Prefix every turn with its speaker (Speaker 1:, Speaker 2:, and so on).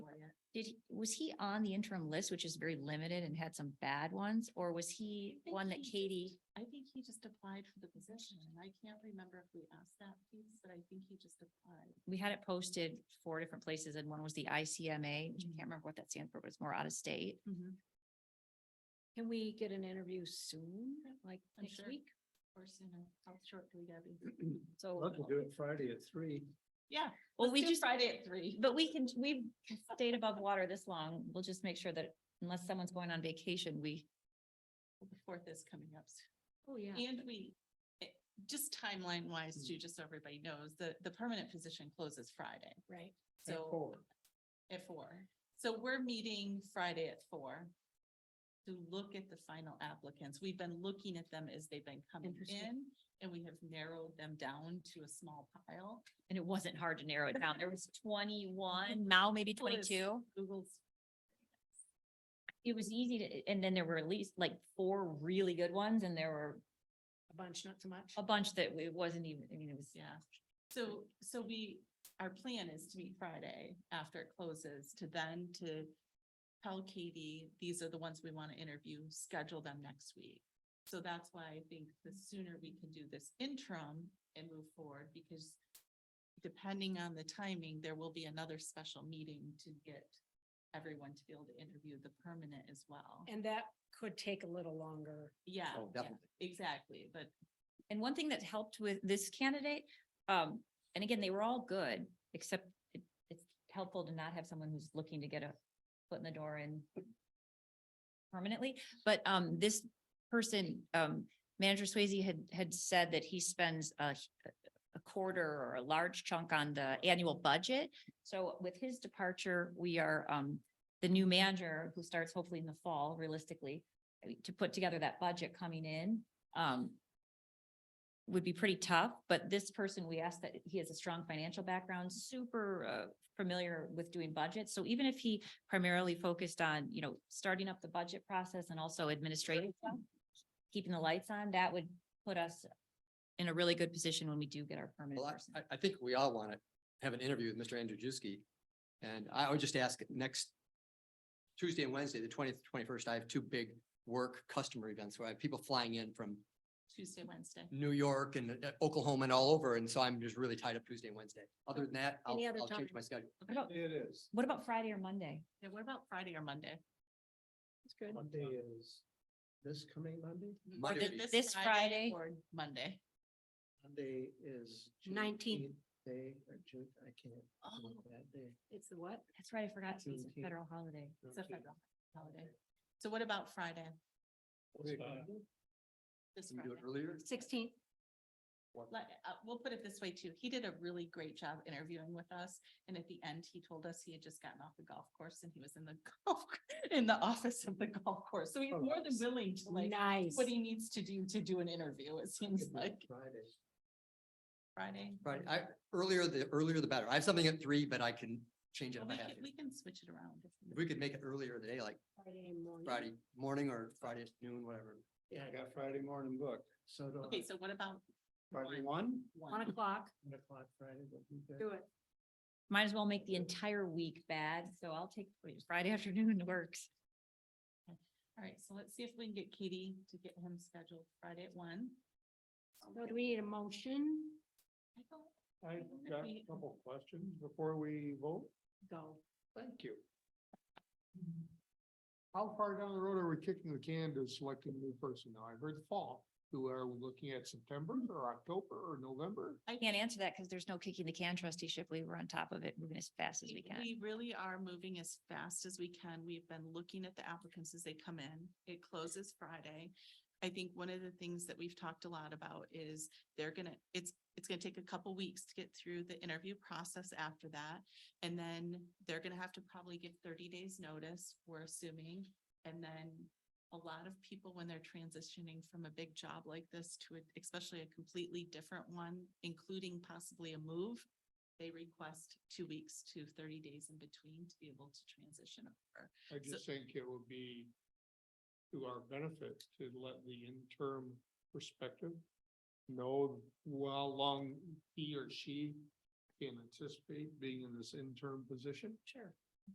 Speaker 1: Did, he was he on the interim list, which is very limited and had some bad ones, or was he
Speaker 2: think
Speaker 1: one that
Speaker 2: he just-
Speaker 1: Katie?
Speaker 2: I think he just applied for the position and I can't remember if we asked that piece, but I think he just applied.
Speaker 1: We had it posted four different places and one was the ICMA, which I
Speaker 2: Mhm.
Speaker 1: can't remember what that stands for, but it's more out of state.
Speaker 3: Can we get an interview soon, like
Speaker 2: I'm
Speaker 3: next
Speaker 2: sure.
Speaker 3: week?
Speaker 2: Or sooner, how short do we gotta be?
Speaker 3: So,
Speaker 4: Love to do it Friday at three.
Speaker 2: Yeah.
Speaker 1: Well,
Speaker 2: let's
Speaker 1: we
Speaker 2: do
Speaker 1: just,
Speaker 2: Friday at three.
Speaker 1: but we can, we've stayed above water this long. We'll just make sure that unless someone's going on vacation, we,
Speaker 2: The fourth is coming up. soon.
Speaker 3: oh, yeah.
Speaker 2: And we, eh, just timeline wise, too, just so everybody knows, the, the permanent position closes Friday.
Speaker 3: Right.
Speaker 4: at
Speaker 2: So
Speaker 4: four.
Speaker 2: at four. So we're meeting Friday at four to look at the final applicants. We've been looking at them as they've been coming
Speaker 3: Interesting.
Speaker 2: in and we have narrowed them down to a small pile.
Speaker 1: and it wasn't hard to narrow it down. There was twenty-one, now maybe
Speaker 2: Well, it's-
Speaker 1: twenty-two.
Speaker 2: Google's
Speaker 1: It was easy to, and then there were at least like four really good ones and there were
Speaker 3: A bunch, not so much.
Speaker 1: a bunch that it wasn't even, I mean, it was.
Speaker 2: Yeah. So, so we, our plan is to meet Friday after it closes to then to tell Katie, these are the ones we want to interview, schedule them next week. So that's why I think the sooner we can do this interim and move forward because depending on the timing, there will be another special meeting to get everyone to be able to interview the permanent as well.
Speaker 3: And that could take a little longer.
Speaker 2: Yeah,
Speaker 4: Oh, definitely.
Speaker 2: exactly. But
Speaker 1: And one thing that helped with this candidate, um, and again, they were all good, except it, it's helpful to not have someone who's looking to get a foot in the door and permanently, but, um, this person, um, Manager Swayze had, had said that he spends a, a quarter or a large chunk on the annual budget. So with his departure, we are, um, the new manager who starts hopefully in the fall realistically, I mean, to put together that budget coming in, um, would be pretty tough, but this person, we asked that he has a strong financial background, super uh, familiar with doing budgets. So even if he primarily focused on, you know, starting up the budget process and also administrative stuff, keeping the lights on, that would put us in a really good position when we do get our permanent
Speaker 5: Well, I-
Speaker 1: person.
Speaker 5: I, I think we all want to have an interview with Mr. Andrzejewski. And I would just ask next Tuesday and Wednesday, the twentieth, twenty-first, I have two big work customer events where I have people flying in from
Speaker 2: Tuesday, Wednesday.
Speaker 5: New York and uh, Oklahoma and all over. And so I'm just really tied up Tuesday and Wednesday. Other than that, I'll,
Speaker 3: Any other
Speaker 5: I'll change
Speaker 3: time?
Speaker 5: my schedule.
Speaker 1: What about-
Speaker 4: It is.
Speaker 1: What about Friday or Monday?
Speaker 2: Yeah, what about Friday or Monday?
Speaker 3: That's good.
Speaker 4: Monday is this coming Monday?
Speaker 5: Monday
Speaker 2: Th-
Speaker 5: would be-
Speaker 1: This Friday?
Speaker 2: Or Monday.
Speaker 4: Monday is. June
Speaker 3: 19th.
Speaker 4: eighth Day or June, I can't. do
Speaker 5: Mm-hmm.
Speaker 2: Oh.
Speaker 4: That day.
Speaker 3: It's the what?
Speaker 1: That's right, I forgot it's a
Speaker 4: Juneteenth.
Speaker 1: federal holiday.
Speaker 2: It's a federal holiday. So what about Friday?
Speaker 4: Okay, good.
Speaker 2: This
Speaker 5: Can we do it
Speaker 2: Friday?
Speaker 5: earlier?
Speaker 3: Sixteenth?
Speaker 2: Let, uh, we'll put it this way too. He did a really great job interviewing with us. And at the end, he told us he had just gotten off the golf course and he was in the golf, in the office of the golf course. So he's
Speaker 4: Oh,
Speaker 2: more than
Speaker 4: nice.
Speaker 2: willing to like,
Speaker 3: Nice.
Speaker 2: what he needs to do to do an interview, it seems
Speaker 4: Could be
Speaker 2: like.
Speaker 4: Friday.
Speaker 2: Friday.
Speaker 5: Right, I, earlier, the earlier the better. I have something at three, but I can change it
Speaker 2: Well,
Speaker 5: if
Speaker 2: We
Speaker 5: I have
Speaker 2: can,
Speaker 5: to.
Speaker 2: we can switch it around. if
Speaker 5: If we could make it earlier in the day, like
Speaker 3: Friday morning.
Speaker 5: Friday morning or Friday noon, whatever.
Speaker 4: Yeah, I got Friday morning booked, so do
Speaker 2: Okay,
Speaker 4: I.
Speaker 2: so what about
Speaker 4: Friday one,
Speaker 3: One
Speaker 2: one?
Speaker 3: o'clock,
Speaker 4: one o'clock Friday. would be good.
Speaker 3: do it.
Speaker 1: Might as well make the entire week bad, so I'll take Friday afternoon works.
Speaker 2: All right, so let's see if we can get Katie to get him scheduled Friday at one.
Speaker 3: So do we need a motion?
Speaker 2: I don't-
Speaker 4: I
Speaker 2: Wonder if
Speaker 4: got a
Speaker 2: we-
Speaker 4: couple questions before we vote.
Speaker 3: Go.
Speaker 4: Thank you. Hmm. How far down the road are we kicking the can to selecting a new person? Now, I heard fall. Who are we looking at September or October or November?
Speaker 1: I can't answer that because there's no kicking the can trustee Shipley. We're on top of it, moving as fast as we
Speaker 2: We
Speaker 1: can.
Speaker 2: we really are moving as fast as we can. We've been looking at the applicants as they come in. It closes Friday. I think one of the things that we've talked a lot about is they're gonna, it's, it's gonna take a couple weeks to get through the interview process after that. And then they're gonna have to probably give thirty days notice, we're assuming. And then a lot of people, when they're transitioning from a big job like this to, a- especially a completely different one, including possibly a move, they request two weeks to thirty days in between to be able to transition over.
Speaker 4: I just think it would be to our benefit to let the interim perspective know who- how long he or she can anticipate being in this interim position.
Speaker 3: Sure.